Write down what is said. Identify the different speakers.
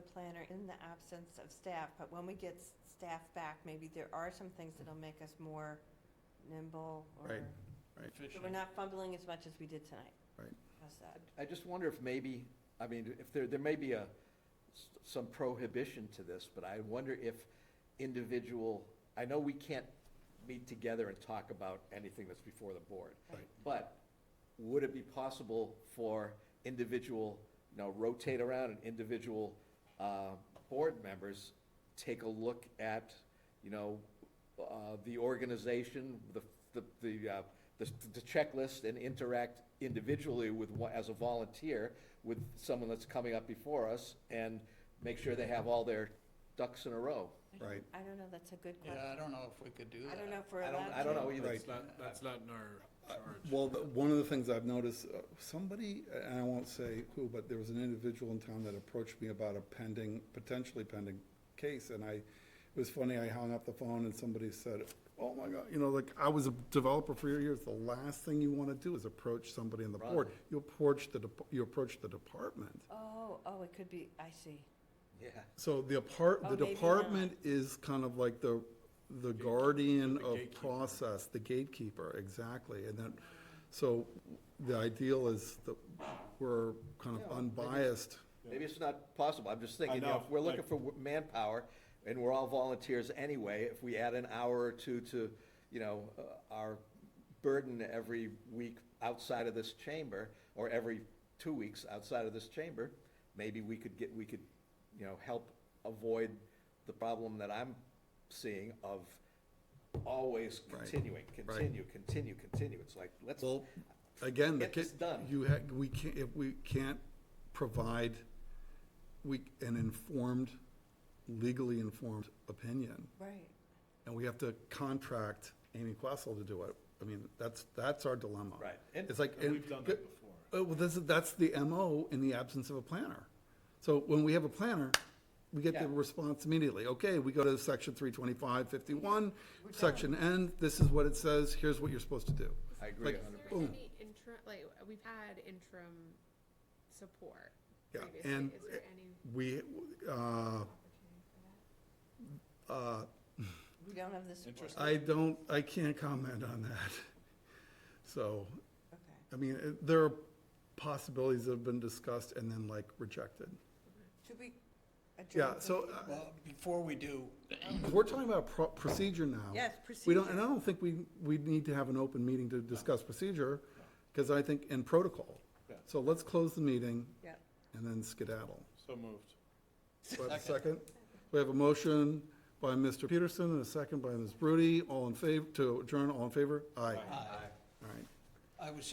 Speaker 1: planner in the absence of staff, but when we get s- staff back, maybe there are some things that'll make us more nimble or,
Speaker 2: Right.
Speaker 1: so we're not fumbling as much as we did tonight.
Speaker 2: Right.
Speaker 1: How's that?
Speaker 3: I just wonder if maybe, I mean, if there, there may be a, s- some prohibition to this, but I wonder if individual, I know we can't meet together and talk about anything that's before the board.
Speaker 2: Right.
Speaker 3: But would it be possible for individual, you know, rotate around and individual, uh, board members take a look at, you know, uh, the organization, the, the, the, uh, the the checklist and interact individually with, one- as a volunteer, with someone that's coming up before us and make sure they have all their ducks in a row.
Speaker 2: Right.
Speaker 1: I don't know, that's a good
Speaker 4: Yeah, I
Speaker 1: question.
Speaker 4: don't know if we could do that.
Speaker 1: I don't know if we're
Speaker 3: I
Speaker 1: allowed
Speaker 3: don't,
Speaker 1: to.
Speaker 3: I don't know either.
Speaker 2: Right.
Speaker 5: That's not, that's not in our charge.
Speaker 2: Well, the- one of the things I've noticed, uh, somebody, and I won't say who, but there was an individual in town that approached me about a pending, potentially pending case, and I, it was funny, I hung up the phone and somebody said, oh my God, you know, like, I was a developer for years, the last thing you want to do is approach somebody on the board.
Speaker 3: Right.
Speaker 2: You approach the, dep- you approach the department.
Speaker 1: Oh, oh, it could be, I see.
Speaker 3: Yeah.
Speaker 2: So the apart,
Speaker 1: Oh,
Speaker 2: the
Speaker 1: maybe
Speaker 2: department is kind of like the, the guardian
Speaker 5: the
Speaker 2: of
Speaker 5: gatekeeper.
Speaker 2: process, the gatekeeper, exactly. And then, so the ideal is that we're kind of unbiased.
Speaker 3: Maybe it's not possible, I'm just thinking, you know,
Speaker 6: know,
Speaker 3: if we're looking
Speaker 6: like-
Speaker 3: for w- manpower, and we're all volunteers anyway, if we add an hour or two to, you know, uh, our burden every week outside of this chamber, or every two weeks outside of this chamber, maybe we could get, we could, you know, help avoid the problem that I'm seeing of always
Speaker 2: Right,
Speaker 3: continuing, continue, continue, continue, it's like, let's,
Speaker 2: Well, again, the
Speaker 3: Get this
Speaker 2: kid,
Speaker 3: done.
Speaker 2: you had, we can't, if we can't provide, we, an informed, legally informed opinion.
Speaker 1: Right.
Speaker 2: And we have to contract Amy Questle to do it. I mean, that's, that's our dilemma.
Speaker 3: Right. And-
Speaker 2: It's like.
Speaker 6: And we've done that before.
Speaker 2: Uh, Well, that's, that's the MO in the absence of a planner. So when we have a planner, we get the
Speaker 3: Yeah.
Speaker 2: response immediately. Okay, we go to section three twenty-five fifty-one, section N, this is what it says, here's what you're supposed to do.
Speaker 3: I agree a
Speaker 2: Like,
Speaker 3: hundred
Speaker 7: Is there
Speaker 2: Boom.
Speaker 7: any interim, like, we've had interim support
Speaker 2: Yeah,
Speaker 7: previously,
Speaker 2: and
Speaker 7: is there any
Speaker 2: we, uh,
Speaker 7: opportunity for that?
Speaker 2: uh,
Speaker 1: We don't have the support.
Speaker 2: I don't, I can't comment on that. So,
Speaker 1: Okay.
Speaker 2: I mean, it- there are possibilities that have been discussed and then like rejected.
Speaker 1: Should we adjourn?
Speaker 2: Yeah, so uh,
Speaker 4: Well, before we do,
Speaker 2: We're talking about pro- procedure now.
Speaker 1: Yes,
Speaker 2: We
Speaker 1: procedure.
Speaker 2: don't, and I don't think we, we need to have an open meeting to discuss procedure, because I think, and protocol.
Speaker 6: Yeah.
Speaker 2: So let's close the meeting
Speaker 1: Yeah.
Speaker 2: and then skedaddle.
Speaker 6: So moved.
Speaker 2: Do I have a second? We have a motion by Mr. Peterson and a second by Ms. Brody. All in favor, to adjourn, all in favor? Aye. All right.
Speaker 4: I was